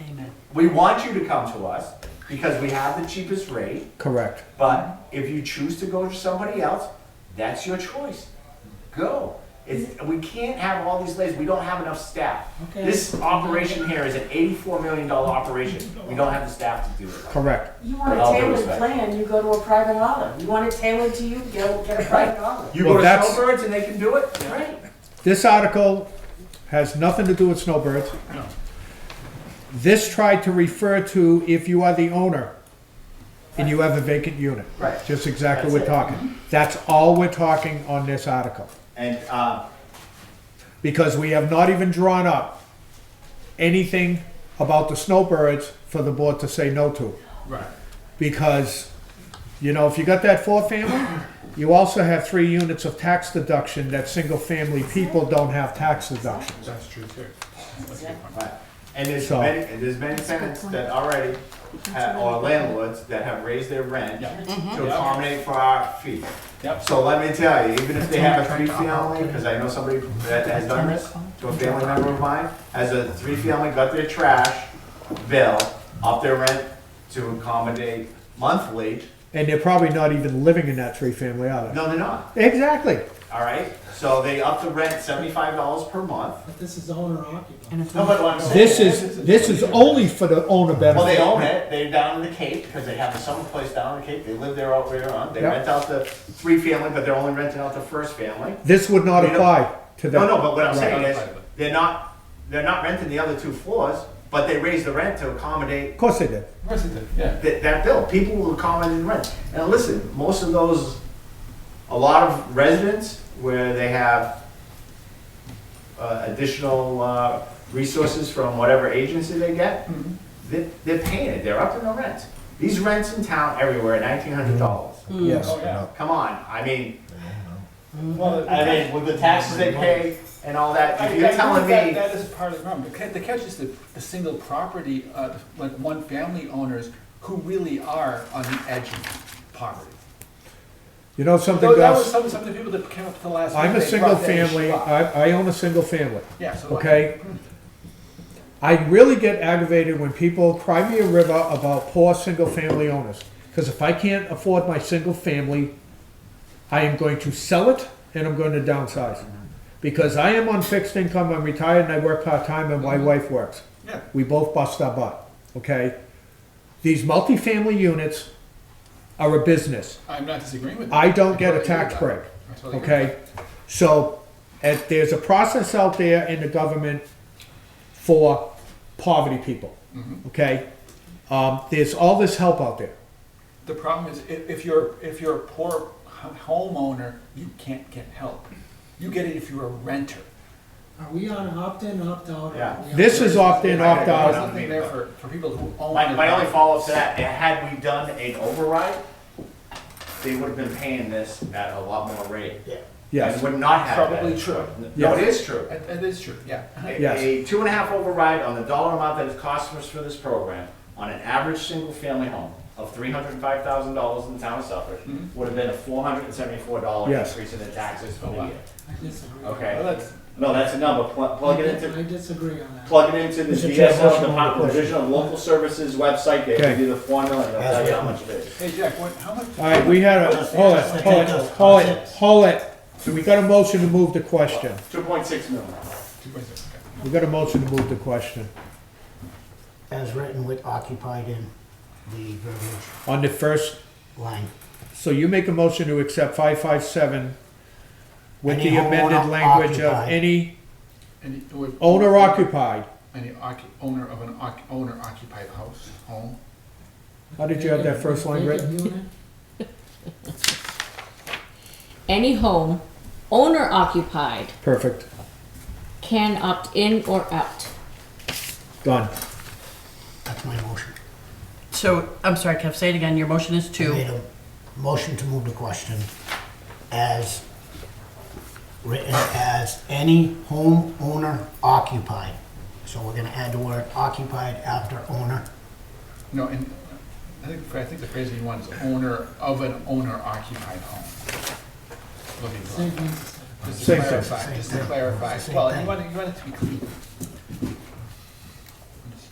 Amen. We want you to come to us because we have the cheapest rate, Correct. but if you choose to go to somebody else, that's your choice. Go. It's, we can't have all these layers. We don't have enough staff. Okay. This operation here is an eighty-four million dollar operation. We don't have the staff to do it. Correct. You want With a all due tailored respect. plan, you go to a private hauler. You want it tailored to you, go get a private hauler. You Well, go to that's- Snowbirds and they can do it? Right. This article has nothing to do with snowbirds. This tried to refer to if you are the owner and you have a vacant unit. Right. Just exactly what we're That's it. talking. That's all we're talking on this article. And, uh, Because we have not even drawn up anything about the snowbirds for the board to say no to. Right. because, you know, if you got that four family, you also have three units of tax deduction that single family people don't have tax deduction. That's true too. Right. And there's So- many, and there's many tenants that already have, or landlords that have raised their rent Yeah. to Yeah. accommodate for our fee. Yep. So let me tell you, even if they have a three family, because I know somebody that has done this, to a family member of mine, has a three family, got their trash bill, up their rent to accommodate monthly, And they're probably not even living in that three family, are no, they're not, they? Exactly. all right? So they up the rent seventy-five dollars per month. But this is owner occupied. And if No, but what I'm saying This is, this is only for the owner Well, they benefit. own it, they're down in the Cape, because they have a summer place down in the Cape, they live there out where on, they Yep. rent out the three family, but they're only renting out the first family. This would not They don't- apply to them. No, no, but what I'm Right. saying is, they're not, they're not renting the other two floors, but they raise the rent to accommodate Of course they did. Of course it did, yeah. that, that bill, people will accommodate the rent. And listen, most of those, a lot of residents where they have uh, additional uh, resources from whatever agency they get, they- they're paying it, they're upping the rent. These rents in town everywhere are nineteen hundred dollars. Yes. Oh, yeah. Come on, I mean, Well, I mean, with the taxes they pay and all that, I- if you're I telling agree that- me, That is part of the problem. The ca- The catch is the, the single property, uh, like one family owners who really are on the edge of poverty. You know something, Though that was Gus? some, some of the people that came up to the last. I'm a minute, they single brought that issue family, up. I, I own a single family. Yeah, so. okay? I really get aggravated when people cry me a river about poor single-family owners. Because if I can't afford my single family, I am going to sell it and I'm going to downsize. Because I am on fixed income, I'm retired and I work part-time and my wife works. Yeah. We both bust our butt, okay? These multifamily units are a business. I'm not disagreeing with that. I don't get a totally agree tax with break. that. I totally agree with Okay, so, if there's a process out there in the government for poverty people, okay? Um, there's all this help out there. that. The problem is, if, if you're, if you're a poor h- homeowner, you can't get help. You get it if you're a renter. Are we on opt-in, opt-out? Yeah. This is opt-in, There's opt-out, nothing there for, for people who own. my, a my only property. follow-up to that, had we done an override, they would have been paying this at a lot more rate. yes. And would not have. Probably that. true. No, Yes. it is true. That, that is true, yeah. A- Yes. A two and a half override on the dollar amount that it costs us for this program on an average single-family home of three hundred and five thousand dollars in the town of Suffolk Hmm? would have been a four hundred and seventy-four dollar Yes. increase in the taxes for Oh, the wow. year. I disagree. Well, Okay? that's, No, that's a number. Pl- Plug it into Mm-hmm. I disagree on that. plug it into the Mr. Chair, DSL, motion on the Department question. Division of Local Services website, they Okay. give you the formula and they'll tell you how much it is. hey, Jack, what, how much? All right, we had a, hold it, hold it, hold it, hold it. So we got a motion to move the question. Two point six million. Two point six, okay. We got a motion to move the question as written with occupied in the verbiage on the first, line. so you make a motion to accept five-five-seven with the Any amended homeowner language of occupied. any Any, or- owner occupied. Any occu, owner of an occu, owner occupied house, home. How did you have that first line written? Vacant unit? Any home, owner occupied, Perfect. can opt in or out. Done. That's my motion. So, I'm sorry, Kev, say it again. Your motion is I to, made a motion to move the question as written as any homeowner occupied. So we're gonna add the word occupied after owner. No, and I think, I think the phrase that you want is owner of an owner occupied home. Looking for, Same thing. just to Same thing, clarify, same just to thing. clarify, Same well, you thing. want, it- you want it to be clean.